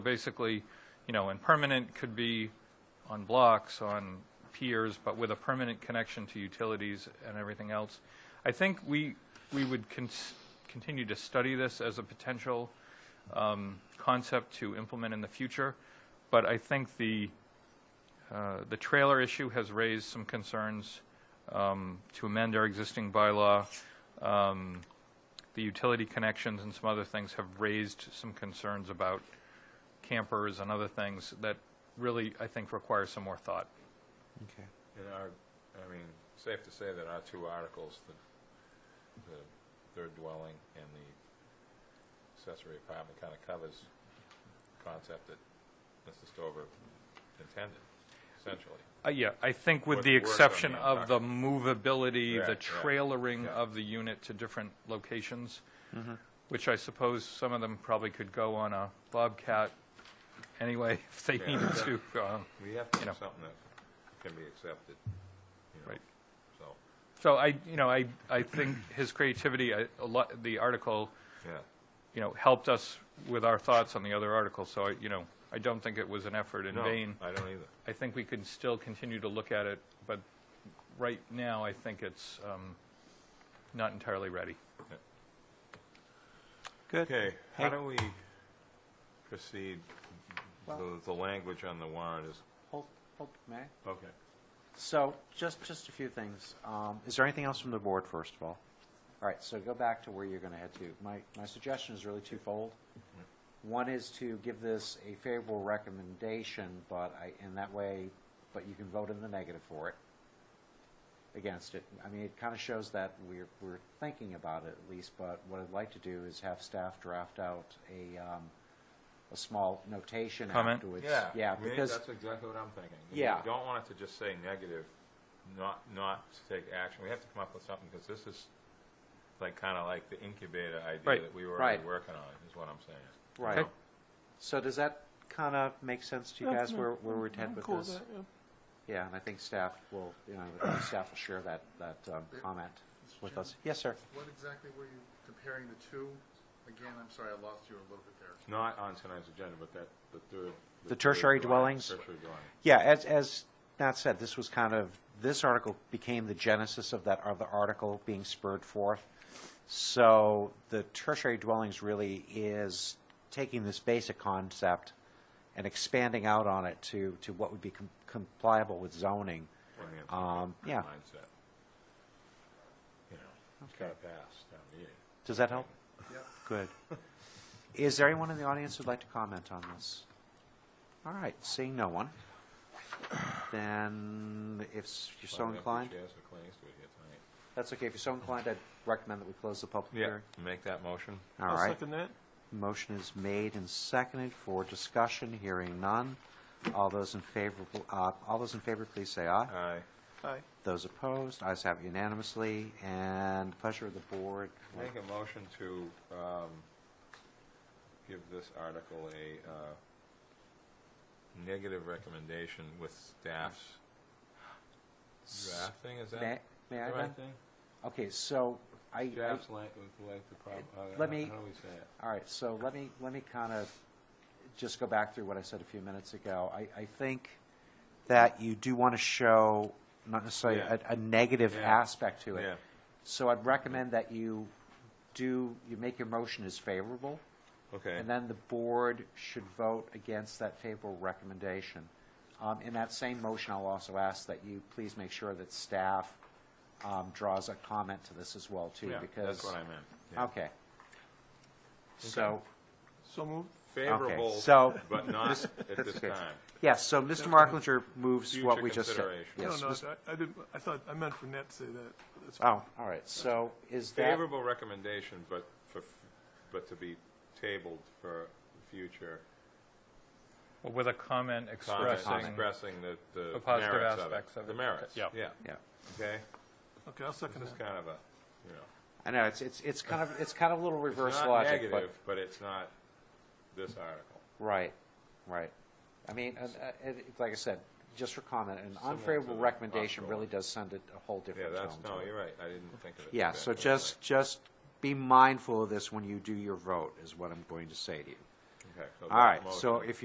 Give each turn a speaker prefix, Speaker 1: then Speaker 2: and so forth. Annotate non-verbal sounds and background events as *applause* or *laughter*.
Speaker 1: Basically, you know, and permanent could be on blocks, on piers, but with a permanent connection to utilities and everything else. I think we, we would cons- continue to study this as a potential um, concept to implement in the future, but I think the, uh, the trailer issue has raised some concerns um, to amend our existing bylaw. Um, The utility connections and some other things have raised some concerns about campers and other things that really, I think, require some more thought.
Speaker 2: Okay.
Speaker 3: And our, I mean, safe to say that our two articles, the, the third dwelling and the accessory apartment kind of covers the concept that Mr. Stover intended, essentially.
Speaker 1: Uh, Yeah, I think with
Speaker 3: What
Speaker 1: the
Speaker 3: works on the
Speaker 1: exception of the
Speaker 3: environment.
Speaker 1: movability, the
Speaker 3: Right, right,
Speaker 1: trailering
Speaker 3: yeah. Mm-hmm.
Speaker 1: of the unit to different locations, which I suppose some of them probably could go on a Bobcat anyway, *laughs* if they
Speaker 3: Yeah.
Speaker 1: needed to. um,
Speaker 3: We have to
Speaker 1: You know.
Speaker 3: have something that can be accepted, you know,
Speaker 1: Right.
Speaker 3: so,
Speaker 1: So I, you know, I, I think his creativity, I- a lot, the article,
Speaker 3: yeah.
Speaker 1: you know, helped us with our thoughts on the other article, so, I you know, I don't think it was an effort in
Speaker 3: No,
Speaker 1: vain.
Speaker 3: I don't either.
Speaker 1: I think we can still continue to look at it, but right now, I think it's um, not entirely ready.
Speaker 2: Good.
Speaker 3: Okay, how
Speaker 2: Hey.
Speaker 3: do we proceed? The, the language on the warrant is,
Speaker 2: Hold, hold, may I?
Speaker 3: okay.
Speaker 2: So, just, just a few things. Um, Is there anything else from the board, first of all? All right, so go back to where you're going to head to. My, my suggestion is really twofold. One is to give this a favorable recommendation, but I, in that way, but you can vote in the negative for it, against it. I mean, it kind of shows that we're, we're thinking about it at least, but what I'd like to do is have staff draft out a, um, a small notation
Speaker 1: Comment?
Speaker 2: afterwards.
Speaker 3: Yeah. I mean,
Speaker 2: because.
Speaker 3: That's exactly what I'm thinking.
Speaker 2: Yeah.
Speaker 3: We don't want it to just say negative, not, not to take action. We have to come up with something, because this is like, kind of like the incubator
Speaker 1: Right.
Speaker 3: idea that we were already
Speaker 2: Right.
Speaker 3: working on, is what I'm saying.
Speaker 2: Right.
Speaker 1: Okay.
Speaker 2: So does that kind of make sense to you guys where, where we're headed with this? Yeah, and I think staff will, you know, I think staff will share that, that um, comment with us. Yes, sir.
Speaker 4: What exactly were you comparing the two? Again, I'm sorry, I lost you a little bit there.
Speaker 3: It's Not on tonight's agenda, but that, the third.
Speaker 2: The
Speaker 3: third
Speaker 2: tertiary
Speaker 3: dwelling,
Speaker 2: dwellings?
Speaker 3: Tertiary dwelling.
Speaker 2: Yeah, as, as Nat said, this was kind of, this article became the genesis of that other article being spurred forth. So the tertiary dwellings really is taking this basic concept and expanding out on it to, to what would be com- compliable with zoning.
Speaker 3: I mean, it's a
Speaker 2: Um, yeah,
Speaker 3: Mindset. You know, it's got to pass down the year.
Speaker 2: does that help?
Speaker 4: Yep.
Speaker 2: Good. Is there anyone in the audience who'd like to comment on this? All right, seeing no one, then if s- you're so inclined,
Speaker 3: Chairs are claims to it here tonight.
Speaker 2: that's okay, if you're so inclined, I'd recommend that we close the public hearing.
Speaker 3: Yeah, make that motion.
Speaker 2: All right. Motion is made and seconded for discussion, hearing none. All those in favor, uh, all those in favor, please say aye.
Speaker 3: Aye.
Speaker 2: Those opposed, ayes have unanimously, and pleasure of the board.
Speaker 3: Make a motion to um, give this article a uh, negative recommendation with staff's drafting, is
Speaker 2: May,
Speaker 3: that
Speaker 2: may
Speaker 3: the
Speaker 2: I
Speaker 3: right
Speaker 2: then?
Speaker 3: thing?
Speaker 2: Okay, so I. I-
Speaker 3: Staff's like, with like the problem, uh, how
Speaker 2: Let
Speaker 3: do we
Speaker 2: me-
Speaker 3: say it?
Speaker 2: All right, so let me, let me kind of just go back through what I said a few minutes ago. I, I think that you do want to show, not necessarily
Speaker 3: Yeah.
Speaker 2: a, a negative
Speaker 3: Yeah.
Speaker 2: aspect to it.
Speaker 3: Yeah.
Speaker 2: So I'd recommend that you do, you make your motion as favorable,
Speaker 3: Okay,
Speaker 2: and then the board should vote against that favorable recommendation. Um, in that same motion, I'll also ask that you please make sure that staff, um, draws a comment to this as well, too,
Speaker 3: yeah,
Speaker 2: because.
Speaker 3: that's what I meant. yeah.
Speaker 2: Okay. So,
Speaker 5: So moved.
Speaker 3: Favorable,
Speaker 2: so- *laughs*
Speaker 3: but not at this
Speaker 2: okay.
Speaker 3: time.
Speaker 2: yes, so Mr. Marklinger moves
Speaker 3: Future
Speaker 2: what we just said.
Speaker 3: consideration.
Speaker 5: No,
Speaker 2: Yes,
Speaker 5: no,
Speaker 2: Mr.
Speaker 5: I- I didn't, I thought, I meant for Nat to say that. but that's-
Speaker 2: Oh, all right, so is that,
Speaker 3: Favorable recommendation, but for, but to be tabled for future
Speaker 1: Well, With a comment
Speaker 3: comments
Speaker 1: expressing,
Speaker 3: expressing the, the
Speaker 1: The positive
Speaker 3: merits of it.
Speaker 1: aspects of
Speaker 3: The
Speaker 1: it.
Speaker 3: merits, yeah,
Speaker 1: Yeah.
Speaker 2: yeah.
Speaker 3: okay?
Speaker 5: Okay, I'll second
Speaker 3: This is
Speaker 5: that.
Speaker 3: kind of a, you know,
Speaker 2: I know, it's, it's, it's kind of, it's kind of a little reverse
Speaker 3: it's not
Speaker 2: logic,
Speaker 3: negative,
Speaker 2: but,
Speaker 3: but it's not this article.
Speaker 2: right, right. I mean, and, uh, it, it- like I said, just for comment, an
Speaker 3: Similar to
Speaker 2: unfavorable
Speaker 3: the
Speaker 2: recommendation
Speaker 3: hospital.
Speaker 2: really does send it a whole
Speaker 3: Yeah,
Speaker 2: different tone
Speaker 3: that's,
Speaker 2: to
Speaker 3: no,
Speaker 2: it.
Speaker 3: you're right, I didn't think of it.
Speaker 2: Yeah, so
Speaker 3: exactly
Speaker 2: just, just be mindful of this when you do your vote, is what I'm going to say to you.
Speaker 3: that way. Okay. so
Speaker 2: All right,
Speaker 3: motion.
Speaker 2: so if